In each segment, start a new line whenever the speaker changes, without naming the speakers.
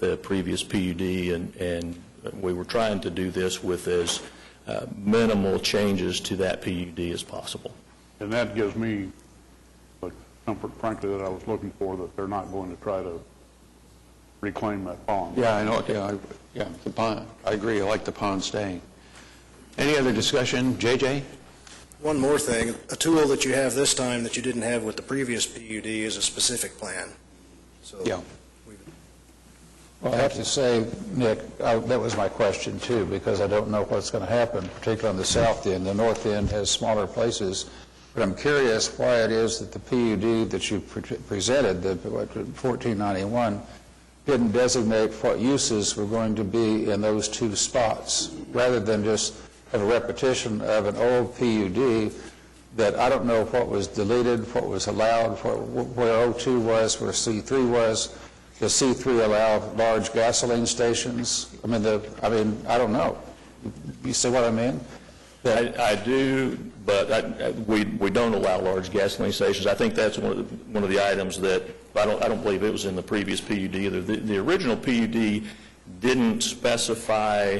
the previous PUD, and, and we were trying to do this with as uh, minimal changes to that PUD as possible.
And that gives me the comfort, frankly, that I was looking for, that they're not going to try to reclaim that pond.
Yeah, I know, yeah, I- yeah, the pond, I agree, I like the pond staying. Any other discussion? JJ?
One more thing, a tool that you have this time that you didn't have with the previous PUD is a specific plan. So
Yeah.
Well, I have to say, Nick, I- that was my question too, because I don't know what's going to happen, particularly on the south end. The north end has smaller places, but I'm curious why it is that the PUD that you pre- presented, the what, 1491, didn't designate what uses were going to be in those two spots, rather than just have a repetition of an old PUD that I don't know what was deleted, what was allowed, what- where O2 was, where C3 was. Does C3 allow large gasoline stations? I mean, the, I mean, I don't know. You see what I mean?
I, I do, but I, I- we, we don't allow large gasoline stations. I think that's one of the, one of the items that, I don't, I don't believe it was in the previous PUD either. The, the original PUD didn't specify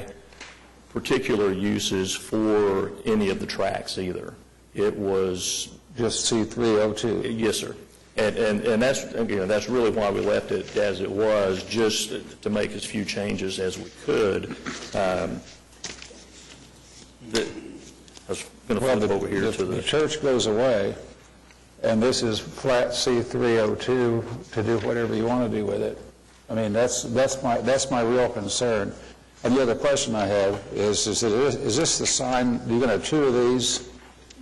particular uses for any of the tracks either. It was,
Just C3, O2.
yes, sir. And, and, and that's, again, that's really why we left it as it was, just to make as few changes as we could. Um, the- I was going to
Well,
flip
the-
over here
the-
to
The
the,
church goes away, and this is flat C-302 to do whatever you want to do with it. I mean, that's, that's my, that's my real concern. And the other question I have is, is it- is this the sign, you're going to have two of these?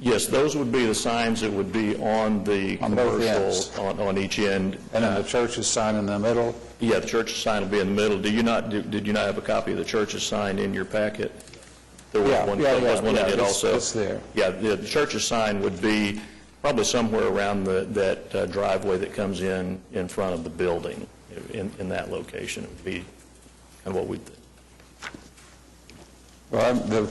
yes, those would be the signs that would be on the
On both ends.
commercial, on, on each end.
And then the church's sign in the middle?
Yeah, the church's sign will be in the middle. Do you not, did did you not have a copy of the church's sign in your packet? There was
Yeah,
one,
yeah,
there was
yeah,
one
yeah,
that did
it's-
also.
it's there.
Yeah, the the church's sign would be probably somewhere around the, that uh, driveway that comes in, in front of the building, in, in that location, would be kind of what we,
Well, I'm- the,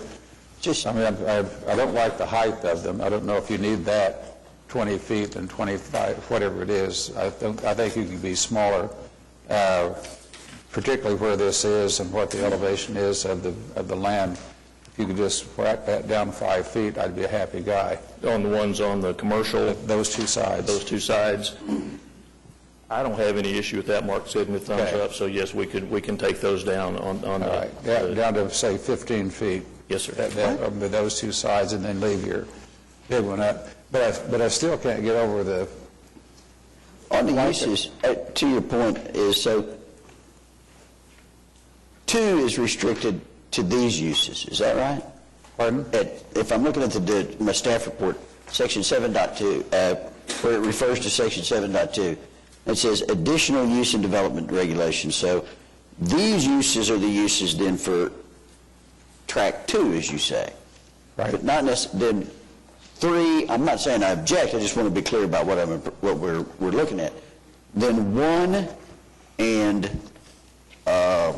I mean, I, I- I don't like the height of them. I don't know if you need that 20 feet and 25, whatever it is. I think, I think you can be smaller, uh, particularly where this is and what the elevation is of the, of the land. If you could just whack that down five feet, I'd be a happy guy.
on the ones on the commercial,
Those two
those
sides.
two sides. I don't have any issue with that, Mark said in the thumbs
Okay.
up, so yes, we could, we can take those down on, on
All
the.
right, down down to, say, 15 feet.
Yes, sir.
That- that- um, Those two sides, and then leave your big one up. But I, but I still can't get over the,
On the
Like it.
uses, uh, to your point, is so, two is restricted to these uses, is that right?
pardon?
At- If I'm looking at the- the, my staff report, section 7.2, uh, where it refers to section 7.2, it says additional use and development regulations, so these uses are the uses then for track two, as you say.
Right.
But not necessarily, then, three, I'm not saying I object, I just want to be clear about what I'm, what we're, we're looking at. Then one and, uh,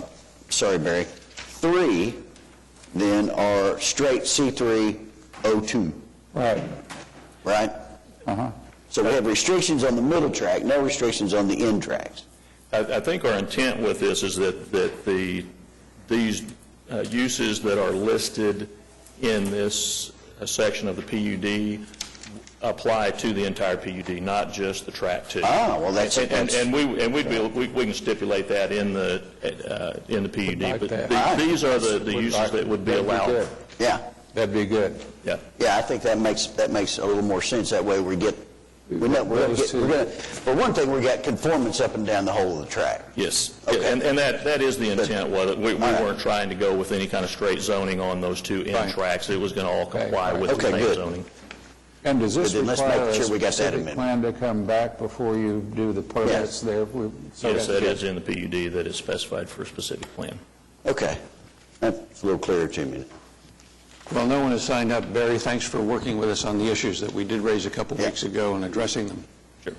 sorry, Barry, three then are straight C302,
Right.
right?
Uh-huh.
So we have restrictions on the middle track, no restrictions on the end tracks.
I, I think our intent with this is that, that the, these uh, uses that are listed in this uh, section of the PUD apply to the entire PUD, not just the track two.
Ah, well, that's-
And, and- and we, and we'd be, we, we can stipulate that in the, uh, in the PUD.
Like
but
that.
Ah,
the- These are the, the uses that would be
That'd
allowed.
good.
Yeah,
That'd be good.
Yeah.
yeah, I think that makes, that makes a little more sense, that way we get, we're not, we're gonna
Those
get,
two.
we're gonna, for one thing, we got conformance up and down the whole of the track.
Yes,
Okay.
and, and that, that is the
But-
intent, whether, we, we
All right.
weren't trying to go with any kind of straight zoning on those two end
Right.
tracks. It was going to all
Okay,
comply
right.
with the
Okay,
main
good.
zoning.
And does this
But then let's
require
make
a
sure we got that
specific
amendment.
plan to come back before you do the permits there? We- so
Yes,
that's
that
good.
is in the PUD that is specified for a specific plan.
Okay, that's a little clearer to me.
Well, no one has signed up. Barry, thanks for working with us on the issues that we did raise a couple
Yeah.
weeks ago and addressing them.
Sure.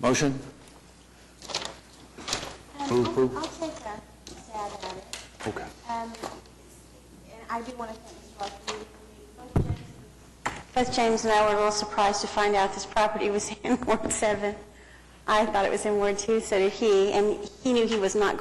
Motion? Move,
Um, I'll-
approve.
I'll take a stab at it.
Okay.
Um, And I do want to thank Mr. Lockley. Both James- Both James and I were a little surprised to find out this property was in Ward 7. I thought it was in Ward 2, so did he, and he knew he was not